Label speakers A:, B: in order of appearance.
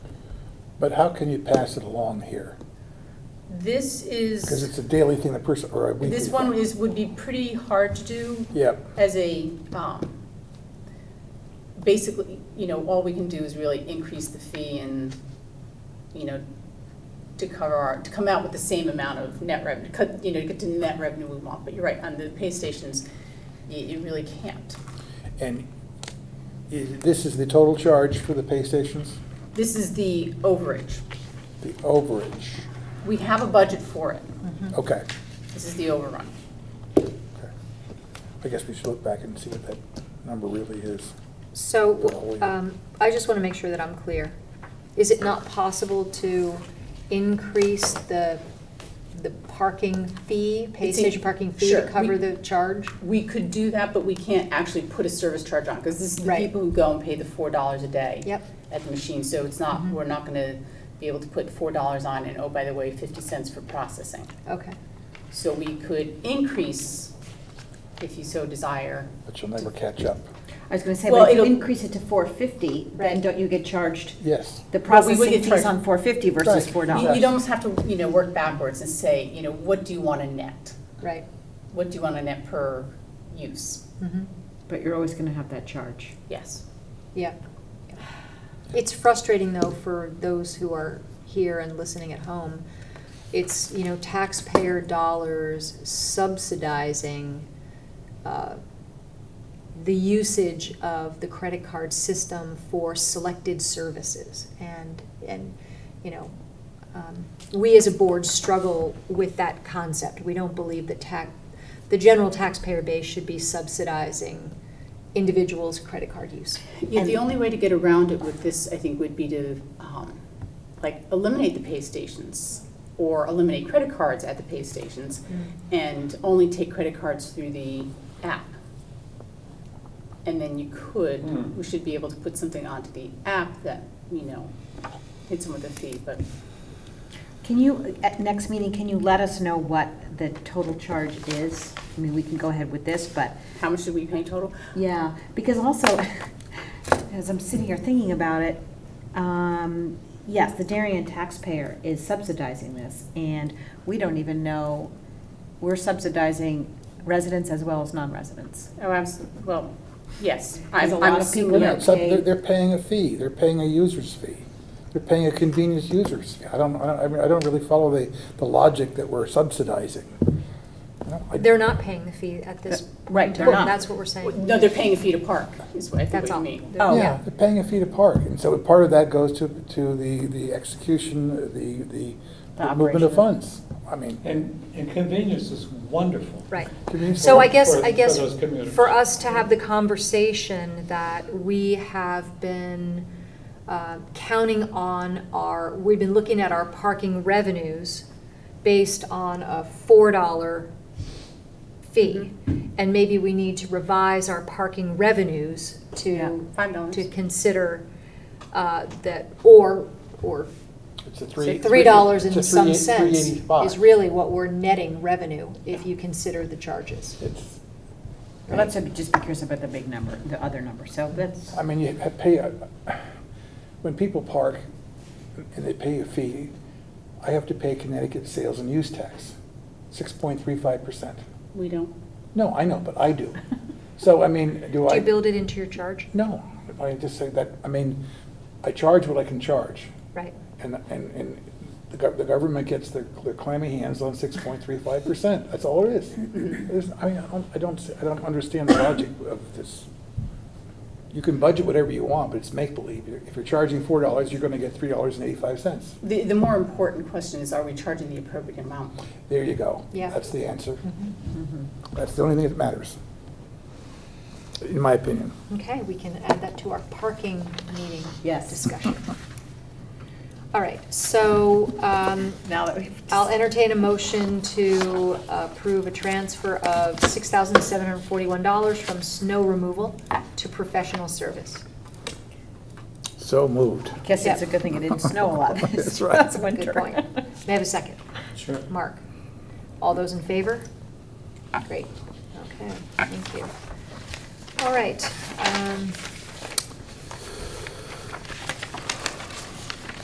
A: But how can you pass it along here?
B: This
A: Because
B: is,
A: it's a daily thing, the person, or a weekly.
B: this one
A: thing.
B: is, would be pretty hard to do
A: Yep,
B: as a, um, basically, you know, all we can do is really increase the fee and, you know, to cover our, to come out with the same amount of net revenue, cut, you know, to get to the net revenue we want, but you're right, on the pay stations, you, you really can't.
A: and i- this is the total charge for the pay stations,
B: This is the overage.
A: the overage,
B: We have a budget for it.
A: okay.
B: This is the overrun.
A: okay. I guess we should look back and see what that number really is.
C: So, um, I just want to make sure that I'm clear. Is it not possible to increase the, the parking fee, pay
B: It's in-
C: station parking fee
B: sure,
C: to
B: we-
C: cover the charge?
B: We could do that, but we can't actually put a service charge on, because this is the
C: Right.
B: people who go and pay the four dollars a day.
C: Yep.
B: At the machine, so it's not,
C: Mhm.
B: we're not gonna be able to put four dollars on and, oh, by the way, fifty cents for processing.
C: Okay,
B: So we could increase, if you so desire.
A: But you'll never catch up.
D: I was gonna say,
B: Well,
D: but if you
B: it'll-
D: increase it to four fifty, then
C: Right.
D: don't you get charged
A: Yes,
B: Well, we
D: the
B: would
D: processing
B: get
D: fees
B: charged-
D: on four fifty versus
A: Right.
D: four
B: You-
D: dollars?
B: You'd almost have to, you know, work backwards and say, you know, what do you want to net?
C: right.
B: What do you want to net per use?
C: Mhm.
D: But you're always gonna have that charge.
B: Yes.
C: Yeah. It's frustrating, though, for those who are here and listening at home. It's, you know, taxpayer dollars subsidizing uh, the usage of the credit card system for selected services. And, and, you know, um, we as a board struggle with that concept. We don't believe that tax, the general taxpayer base should be subsidizing individuals' credit card use.
B: Yeah, the
D: And-
B: only way to get around it with this, I think, would be to, um, like, eliminate the pay stations or eliminate credit cards at the pay stations
D: Mm.
B: and only take credit cards through the app. And then you
D: Hmm.
B: could, we should be able to put something onto the app that, you know, hits them with a fee, but
D: Can you, at next meeting, can you let us know what the total charge is? I mean, we can go ahead with this, but,
B: how much should we pay total?
D: yeah, because also, as I'm sitting here thinking about it, um, yes, the Darien taxpayer is subsidizing this, and we don't even know, we're subsidizing residents as well as non-residents.
B: Oh, absolutely, well, yes,
D: There's
B: I'm
D: a
B: I'm
D: lot of people
B: assuming.
D: that
A: yeah, so
D: pay-
A: they're, they're paying a fee, they're paying a user's fee, they're paying a convenience user's fee. I don't, I don't- I mean, I don't really follow the, the logic that we're subsidizing. I don't like-
C: They're not paying the fee at this.
D: Right, they're
C: point.
D: not.
C: That's what we're saying.
B: No, they're paying a fee to park, is what I think what
C: That's
B: you
C: all.
B: mean.
D: Oh,
A: Yeah, they're paying a fee to park, and so part of that goes to, to the, the execution, the, the the movement of
D: operation.
A: funds. I mean,
E: And, and convenience is wonderful.
C: Right.
A: convenience-
C: So I guess,
E: For-
C: I guess,
E: for those commuters.
C: for us to have the conversation that we have been uh, counting on our, we've been looking at our parking revenues based on a $4 fee.
D: Mm-hmm.
C: And maybe we need to revise our parking revenues
D: Yeah.
C: to,
B: Five dollars.
C: to consider uh, that, or, or
A: It's a three.
C: Three dollars
A: it's a
C: and some
A: three-
C: cents is
A: 385.
C: really what we're netting revenue, if you consider the charges.
A: It's,
D: Well, Let's just be curious about the big number, the other number, so that's,
A: I mean, you ha- pay, a- when people park and they pay a fee, I have to pay Connecticut sales and use tax, six point three five percent.
B: We don't.
A: No, I know, but I do. So, I mean, do
C: Do
A: I?
C: you build it into your charge?
A: No, I just say that, I mean, I charge what I can charge.
C: Right,
A: And, and, and the gov- the government gets their, their clammy hands on six point three five percent, that's all it is. There's, I mean, I don't, I don't, see- I don't understand the logic of this. You can budget whatever you want, but it's make-believe. If you're charging four dollars, you're gonna get three dollars and eighty-five cents.
B: The, the more important question is, are we charging the appropriate amount?
A: There you go.
C: Yeah.
A: That's the answer.
D: mm-hmm.
A: That's the only thing that matters, in my opinion.
C: okay, we can add that to our parking meeting
D: Yes.
C: discussion. All right, so um,
D: now that we've.
C: I'll entertain a motion to approve a transfer of $6,741 from snow removal to professional service.
A: So moved.
D: Guess it's a good thing it didn't snow a lot this
A: That's right.
D: last winter.
C: Good point. May I have a second?
E: Sure.
C: Mark? All those in favor? Great, okay, thank you. All right, um,